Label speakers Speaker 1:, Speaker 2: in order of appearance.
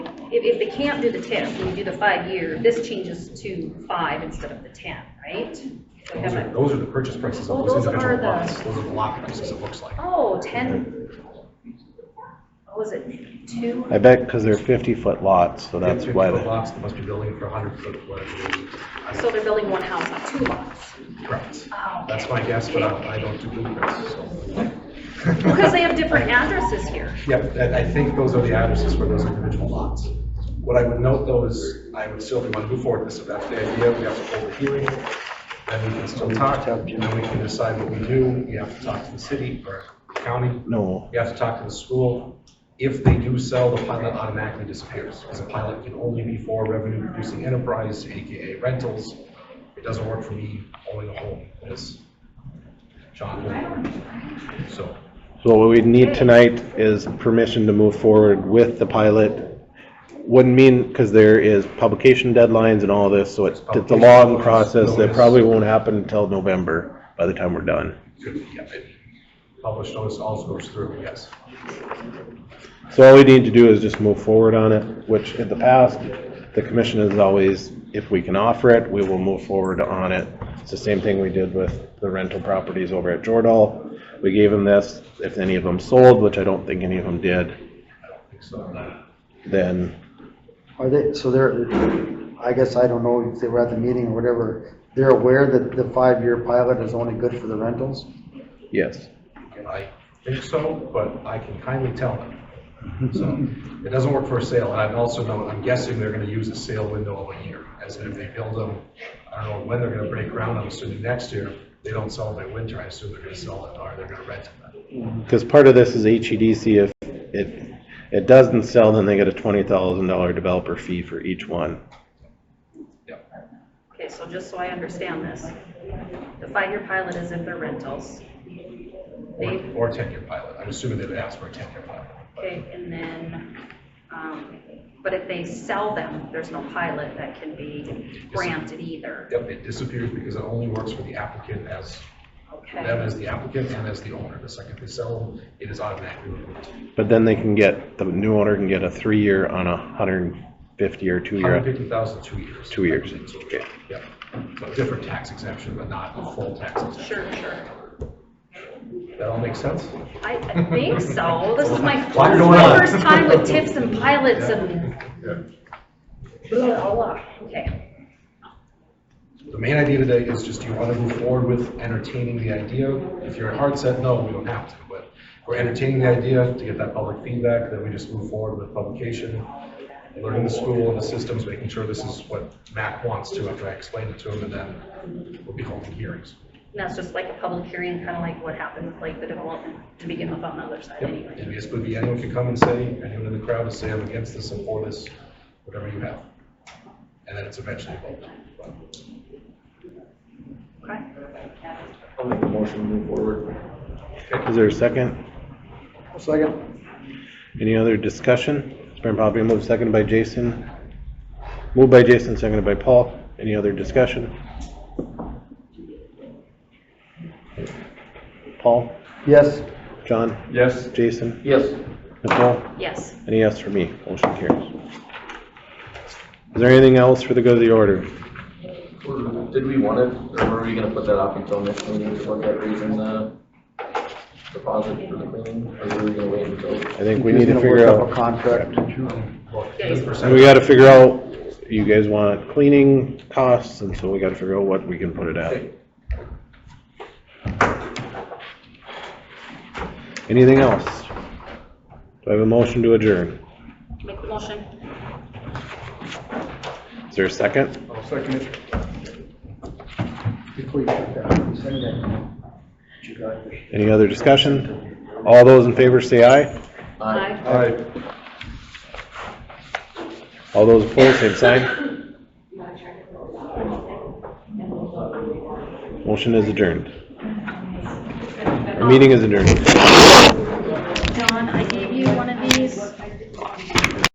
Speaker 1: if, if they can't do the test, and you do the five-year, this changes to five instead of the 10, right? So we
Speaker 2: Those
Speaker 1: have
Speaker 2: are,
Speaker 1: a-
Speaker 2: those are the purchase prices
Speaker 1: Well,
Speaker 2: of those
Speaker 1: those are
Speaker 2: individual
Speaker 1: the-
Speaker 2: lots. Those are the lot prices, it looks like.
Speaker 1: Oh, 10, what was it, two?
Speaker 3: I bet because they're 50-foot lots, so that's
Speaker 2: Fifty
Speaker 3: why
Speaker 2: foot
Speaker 3: the,
Speaker 2: Lots that must be building for 100-foot
Speaker 1: So they're building one house on two lots.
Speaker 2: Correct.
Speaker 1: Oh, okay.
Speaker 2: That's my guess, but I I don't do blueprints, so.
Speaker 1: Because they have different addresses here.
Speaker 2: Yep, that- I think those are the addresses for those individual lots. What I would note though is, I would still, if we want to move forward with this, if that's the idea, we have to hold a hearing, then we can still talk, and then we can decide what we do. We have to talk to the city or county,
Speaker 3: no,
Speaker 2: we have to talk to the school. If they do sell, the pilot automatically disappears, because a pilot can only be for revenue producing enterprise, AKA rentals. It doesn't work for me owning a home, as John will. So,
Speaker 3: so what we need tonight is permission to move forward with the pilot. Wouldn't mean, because there is publication deadlines and all this, so it's, it's a long process that probably won't happen until November by the time we're done.
Speaker 2: could be, yeah, maybe. Published notice also goes through, yes.
Speaker 3: So all we need to do is just move forward on it, which in the past, the commission is always, if we can offer it, we will move forward on it. It's the same thing we did with the rental properties over at Jordal. We gave them this, if any of them sold, which I don't think any of them did,
Speaker 2: So,
Speaker 3: then,
Speaker 4: Are they, so they're, I guess I don't know if they were at the meeting or whatever, they're aware that the five-year pilot is only good for the rentals?
Speaker 3: yes.
Speaker 2: I think so, but I can kindly tell them. So, it doesn't work for a sale, and I also know, I'm guessing they're gonna use a sale window of a year, as in if they build them, I don't know when they're gonna break ground, I'm assuming next year, they don't sell them in winter, I assume they're gonna sell it, or they're gonna rent it.
Speaker 3: Because part of this is HEDC, if it, it doesn't sell, then they get a twenty thousand dollar developer fee for each one.
Speaker 1: Okay, so just so I understand this, the five-year pilot is if they're rentals. They,
Speaker 2: Or, or ten-year pilot, I'm assuming they would ask for a ten-year pilot.
Speaker 1: okay, and then, um, but if they sell them, there's no pilot that can be granted either.
Speaker 2: Yep, it disappears because it only works for the applicant as, them
Speaker 1: Okay,
Speaker 2: as the applicant and as the owner, the second they sell them, it is automatically removed.
Speaker 3: But then they can get, the new owner can get a three-year on a hundred and fifty or two-year.
Speaker 2: Hundred fifty thousand, two years.
Speaker 3: Two years,
Speaker 2: Okay. Yep. So a different tax exemption, but not a full tax exemption.
Speaker 1: sure, sure.
Speaker 2: That all makes sense?
Speaker 1: I, I think so. This is my, this is
Speaker 2: Why are you going
Speaker 1: my
Speaker 2: on?
Speaker 1: first time with tips and pilots and
Speaker 2: Yeah.
Speaker 1: blah, blah. Okay,
Speaker 2: The main idea today is just you want to move forward with entertaining the idea. If you're hard set, no, we don't have to, but we're entertaining the idea to get that public feedback, then we just move forward with publication, learning the school and the systems, making sure this is what Mac wants to after I explain it to him, and then we'll be holding hearings.
Speaker 1: and that's just like a public hearing, kind of like what happened with like the development to begin with on the other side
Speaker 2: Yep,
Speaker 1: anyway.
Speaker 2: and this would be, anyone can come and say, anyone in the crowd is saying I'm against this and for this, whatever you have. And then it's eventually voted.
Speaker 1: Okay.
Speaker 5: I'll make a motion to move forward.
Speaker 3: Is there a second?
Speaker 4: Second.
Speaker 3: Any other discussion? It's been properly moved, seconded by Jason. Moved by Jason, seconded by Paul. Any other discussion? Paul,
Speaker 4: Yes,
Speaker 3: John,
Speaker 5: Yes.
Speaker 3: Jason,
Speaker 5: Yes.
Speaker 3: Nicole,
Speaker 1: Yes.
Speaker 3: any yes for me? Motion carries. Is there anything else for the good of the order?
Speaker 5: Did we want it, or were we gonna put that off until next meeting to look at raising the deposit for the building? Or were we gonna wait until?
Speaker 3: I think we
Speaker 4: He's
Speaker 3: need to
Speaker 4: gonna
Speaker 3: figure
Speaker 4: work up a
Speaker 3: out,
Speaker 4: contract.
Speaker 3: and we gotta figure out, you guys want cleaning costs, and so we gotta figure out what we can put it at. Anything else? Do I have a motion to adjourn?
Speaker 1: Make the motion.
Speaker 3: Is there a second?
Speaker 2: I'll second it.
Speaker 4: Before you put that, send that. You got this.
Speaker 3: Any other discussion? All those in favor say aye.
Speaker 1: Aye.
Speaker 3: All those opposed, same sign. Motion is adjourned. Our meeting is adjourned.
Speaker 1: John, I gave you one of these.